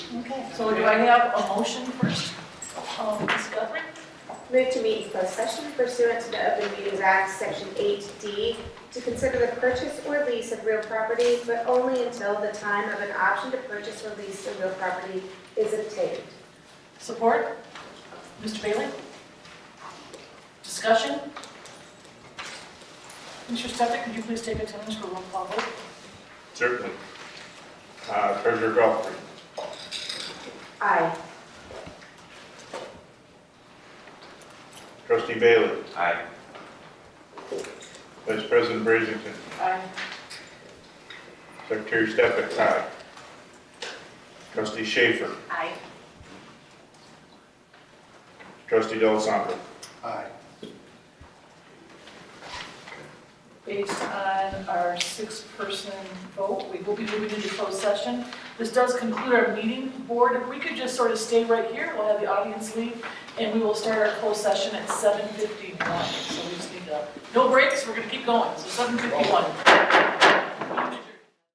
Okay. So do I have a motion first? Um, Ms. Guthrie? Move to meet in closed session pursuant to the Open Meetings Act, Section 8D, to consider the purchase or lease of real property, but only until the time of an option to purchase or lease of real property is obtained. Support? Mr. Bailey? Discussion? Mr. Stefan, could you please take attendance for roll call vote? Certainly. Uh, Treasurer Goffrey, Aye. Trustee Bailey, Aye. Vice President Brazington, Aye. Secretary Stefan, aye. Trustee Schaefer, Aye. Trustee Delasanto. Aye. Based on our six-person vote, we will be moving into closed session. This does conclude our meeting. Board, if we could just sort of stay right here, we'll have the audience leave, and we will start our closed session at 7:51. So we just need to, no breaks, we're going to keep going, so 7:51.